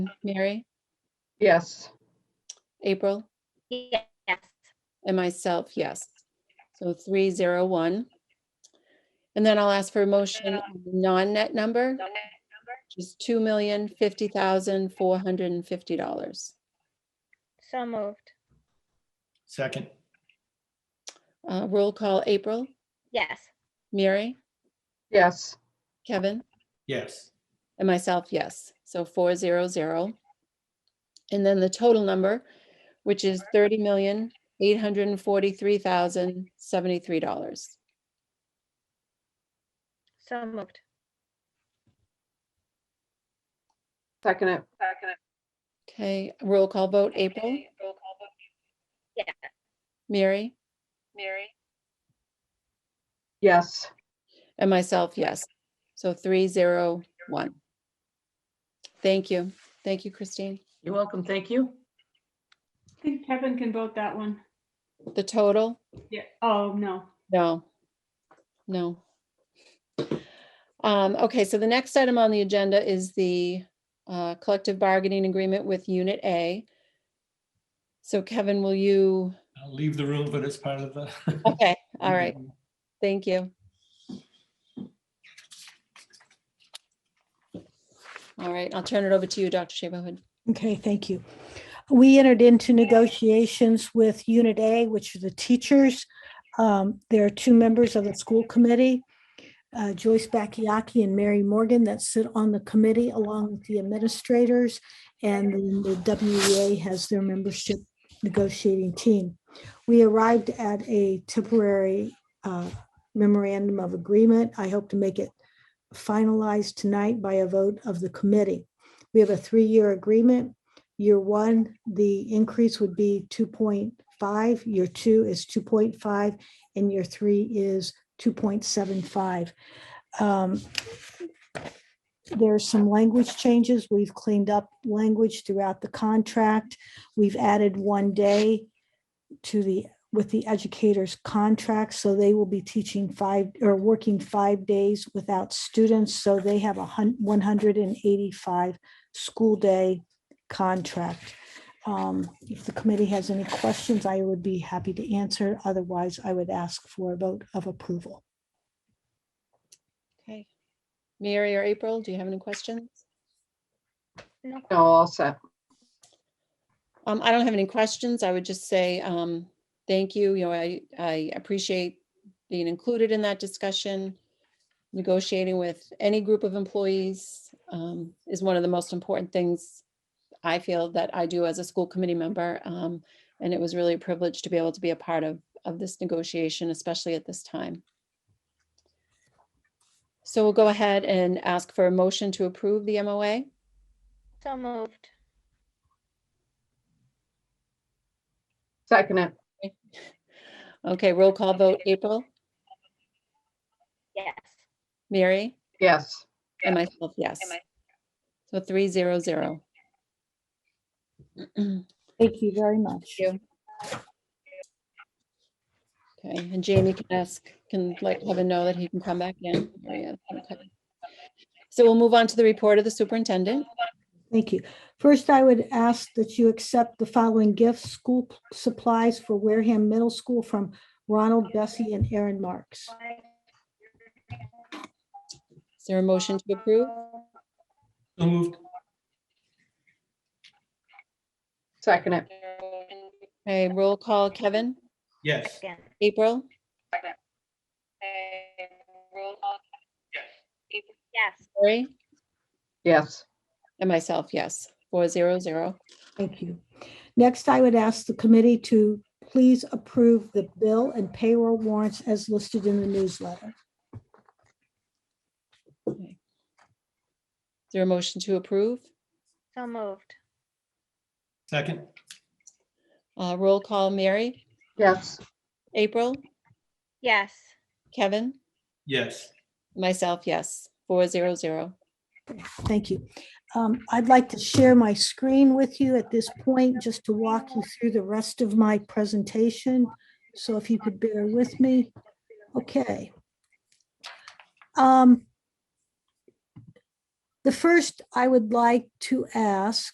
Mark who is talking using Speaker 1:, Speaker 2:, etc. Speaker 1: Mary,
Speaker 2: Yes.
Speaker 1: April,
Speaker 3: Yes.
Speaker 1: and myself, yes. So three zero one. And then I'll ask for a motion, on the non-net number, which is two million fifty thousand four hundred and fifty dollars.
Speaker 3: So moved.
Speaker 4: Second,
Speaker 1: Uh, roll call, April,
Speaker 3: Yes.
Speaker 1: Mary,
Speaker 2: Yes.
Speaker 1: Kevin,
Speaker 4: yes.
Speaker 1: and myself, yes. So four zero zero. And then the total number, which is thirty million eight hundred and forty-three thousand seventy-three dollars.
Speaker 3: So moved.
Speaker 2: Second it.
Speaker 1: Okay, roll call vote, April,
Speaker 3: Yes.
Speaker 1: Mary?
Speaker 2: Yes.
Speaker 1: And myself, yes. So three zero one. Thank you. Thank you, Christine.
Speaker 5: You're welcome. Thank you.
Speaker 6: I think Kevin can vote that one.
Speaker 1: The total?
Speaker 6: Yeah, oh, no.
Speaker 1: No. No. Um, okay, so the next item on the agenda is the uh, collective bargaining agreement with Unit A. So Kevin, will you?
Speaker 4: I'll leave the room, but it's part of the.
Speaker 1: Okay, all right. Thank you. All right, I'll turn it over to you, Dr. Shabahood.
Speaker 7: Okay, thank you. We entered into negotiations with Unit A, which are the teachers. Um, There are two members of the school committee, uh, Joyce Bakayaki and Mary Morgan, that sit on the committee along with the administrators. And then the WEA has their membership negotiating team. We arrived at a temporary uh, memorandum of agreement. I hope to make it finalized tonight by a vote of the committee. We have a three-year agreement. Year one, the increase would be two point five, year two is two point five, and year three is two point seven five. There's some language changes. We've cleaned up language throughout the contract. We've added one day to the, with the educators' contract, so they will be teaching five, or working five days without students, so they have a hun, one hundred and eighty-five school day contract. Um, If the committee has any questions, I would be happy to answer. Otherwise, I would ask for a vote of approval.
Speaker 1: Okay. Mary or April, do you have any questions?
Speaker 3: No.
Speaker 2: No, all set.
Speaker 1: Um, I don't have any questions. I would just say, um, thank you. You know, I, I appreciate being included in that discussion. Negotiating with any group of employees, um, is one of the most important things I feel that I do as a school committee member. Um, and it was really a privilege to be able to be a part of, of this negotiation, especially at this time. So we'll go ahead and ask for a motion to approve the MOA.
Speaker 3: So moved.
Speaker 2: Second it.
Speaker 1: Okay, roll call vote. April,
Speaker 3: Yes.
Speaker 1: Mary?
Speaker 2: Yes.
Speaker 1: And myself, yes. So three zero zero. Okay,
Speaker 7: Thank you very much.
Speaker 1: you. and Jamie can ask, can let Kevin know that he can come back in. There he is. Okay. So we'll move on to the report of the superintendent.
Speaker 7: Thank you. First, I would ask that you accept the following gifts, school supplies for Wareham Middle School from Ronald, Bessie, and Aaron Marks.
Speaker 1: Is there a motion to approve?
Speaker 4: So moved,
Speaker 2: Second it.
Speaker 1: Okay, roll call, Kevin,
Speaker 4: yes.
Speaker 3: Again.
Speaker 1: April,
Speaker 3: Yes.
Speaker 1: Lori,
Speaker 2: Yes.
Speaker 1: and myself, yes, four zero zero.
Speaker 7: Thank you. Next, I would ask the committee to please approve the bill and payroll warrants as listed in the newsletter.
Speaker 1: Is there a motion to approve?
Speaker 3: So moved.
Speaker 4: Second,
Speaker 1: Uh, roll call, Mary,
Speaker 2: Yes.
Speaker 1: April,
Speaker 3: Yes.
Speaker 1: Kevin?
Speaker 4: yes.
Speaker 1: Myself, yes, four zero zero.
Speaker 7: Thank you. Um, I'd like to share my screen with you at this point, just to walk you through the rest of my presentation. So if you could bear with me. Okay. Um, The first I would like to ask